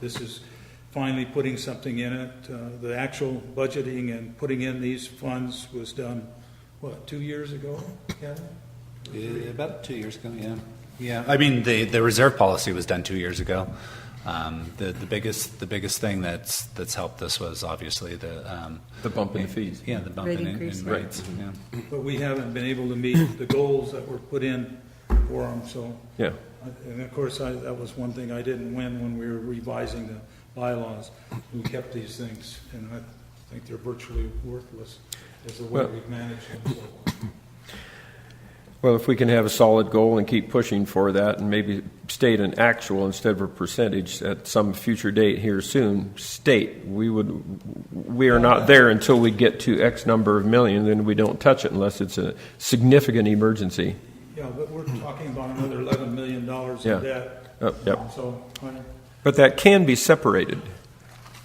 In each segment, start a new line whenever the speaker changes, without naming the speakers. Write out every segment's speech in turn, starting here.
This is finally putting something in it. Uh, The actual budgeting and putting in these funds was done, what, two years ago, Kevin?
Yeah, About two years ago, yeah. Yeah, I mean, the, the reserve policy was done two years ago. Um, the, the biggest, the biggest thing that's, that's helped us was obviously the, um.
The bump in the fees.
Yeah, the bump
Rate
in,
increase,
in
yeah.
rates, yeah.
But we haven't been able to meet the goals that were put in for them, so. uh,
Yeah.
And of course, I, that was one thing I didn't win when we were revising the bylaws. We kept these things, and I think they're virtually worthless as the way
Well-
we've managed them. so.
Well, if we can have a solid goal and keep pushing for that and maybe state an actual instead of a percentage at some future date here soon, state, we would, we are not there until we get to X number of million, then we don't touch it unless it's a significant emergency.
Yeah, but we're talking about another eleven million dollars
Yeah.
in debt.
Oh, yep.
So, I-
But that can be separated.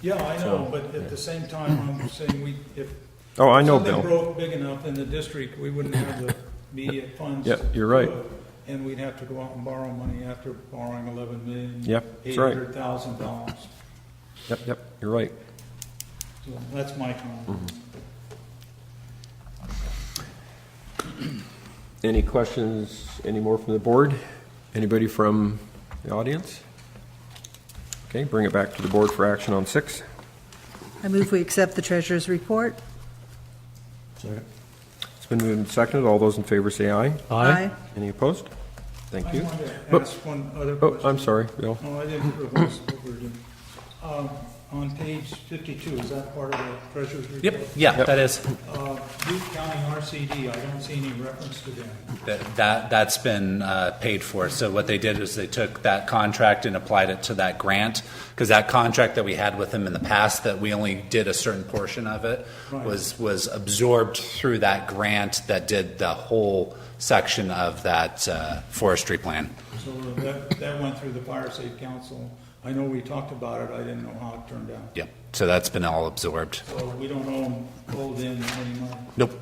yeah, I know, but at the same time, I'm saying we, if.
Oh, I know,
Something
Bill.
broke big enough in the district, we wouldn't have the immediate funds.
Yeah, you're right.
to do it, And we'd have to go out and borrow money after borrowing eleven million.
Yep, that's right.
dollars.
Yep, yep, you're right.
So that's my comment.
Mm-hmm. Any questions, any more from the board? Anybody from the audience? Okay, bring it back to the board for action on six.
I move we accept the treasurer's report.
It's been moved and seconded. All those in favor say aye.
Aye.
Any opposed? Thank
I
you.
wanted to
Oh,
ask one other
Oh,
question.
I'm sorry, Bill.
No, I didn't realize what we were doing. Um, On page fifty-two, is that part of the treasurer's report?
Yep, yeah,
Yep.
that is,
Uh, Duke County RCD, I don't see any reference to them.
that, that- that's been uh, paid for. So what they did is they took that contract and applied it to that grant, because that contract that we had with them in the past, that we only did a certain portion of it,
Right.
was, was absorbed through that grant that did the whole section of that uh, forestry plan.
So that, that went through the Fire Safe Council. I know we talked about it, I didn't know how it turned out.
Yep, so that's been all absorbed.
So we don't own, hold in any money.
Nope.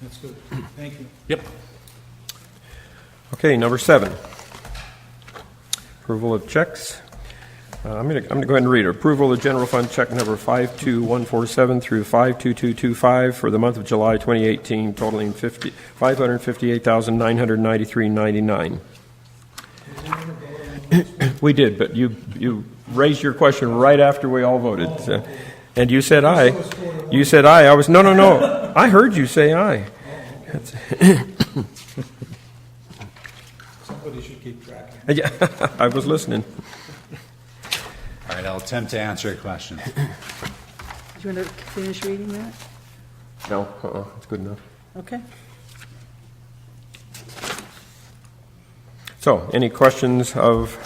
That's good. Thank you.
Yep.
Okay, number seven. Approval of checks. Uh, I'm going to, I'm going to go ahead and read it. Approval of general fund check number 52147 through 52225 for the month of July 2018 totaling 50, 558,993.99. We did, but you, you raised your question right after we all voted. so- And you said aye. You said aye. I was, no, no, no. I heard you say aye.
Somebody should keep track of it.
Yeah, I was listening.
All right, I'll attempt to answer your question.
Do you want to finish reading that?
No, uh-uh, it's good enough.
Okay.
So, any questions of,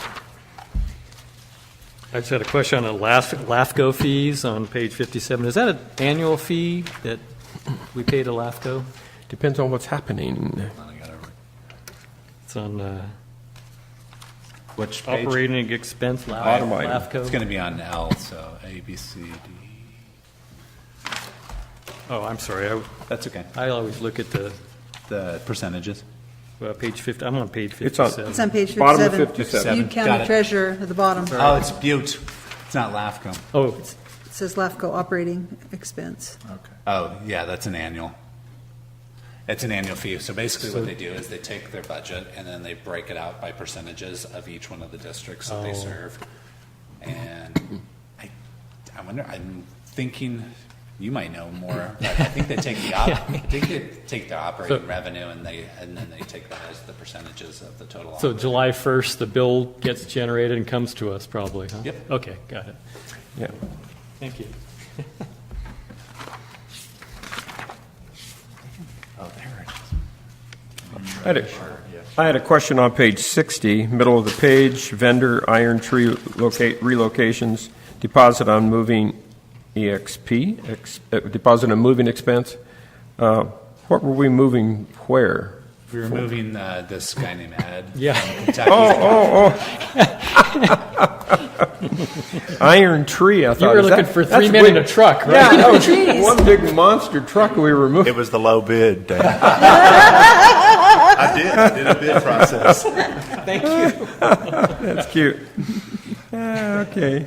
I just had a question on the LAF LAFCO fees on page 57. Is that an annual fee that we pay to LAFCO?
depends on what's happening.
It's on uh,
Which page?
operating expense, La-
Bottom item.
It's going
LAFCO.
to be on L, so A, B, C, D.
Oh, I'm sorry, I-
That's okay.
I always look at the,
The percentages.
uh, page 50, I'm on page
It's on-
57.
It's on page 57.
Bottom of 57.
Butte
Got
County
it.
Treasurer at the bottom.
Oh, it's Butte. It's not LAFCO.
Oh,
It says LAFCO operating expense.
Oh, yeah, that's an annual. It's an annual fee. So basically what they do is they take their budget and then they break it out by percentages of each one of the districts that they
Oh.
serve. And I, I wonder, I'm thinking, you might know more, but I think they take the, op- I think they take their operating revenue and they, and then they take that as the percentages of the total.
so July 1st, the bill gets generated and comes to us probably, huh?
Yep.
Okay, got it.
Yeah.
Thank you.
Oh, there it is.
I had, a, I had a question on page 60, middle of the page, vendor iron tree locate, relocations, deposit on moving EXP, ex, uh, deposit on moving expense. Uh, what were we moving where?
We were moving uh, this guy named Ed.
Yeah.
from Kentucky.
Oh, Iron tree, I thought.
You were
is that-
looking for
that's
three men in
way-
a truck,
Yeah,
right?
that was one big monster truck we were moving.
It was the low bid. Dan. I did. I did a bid process.
That's cute. Ah, Okay.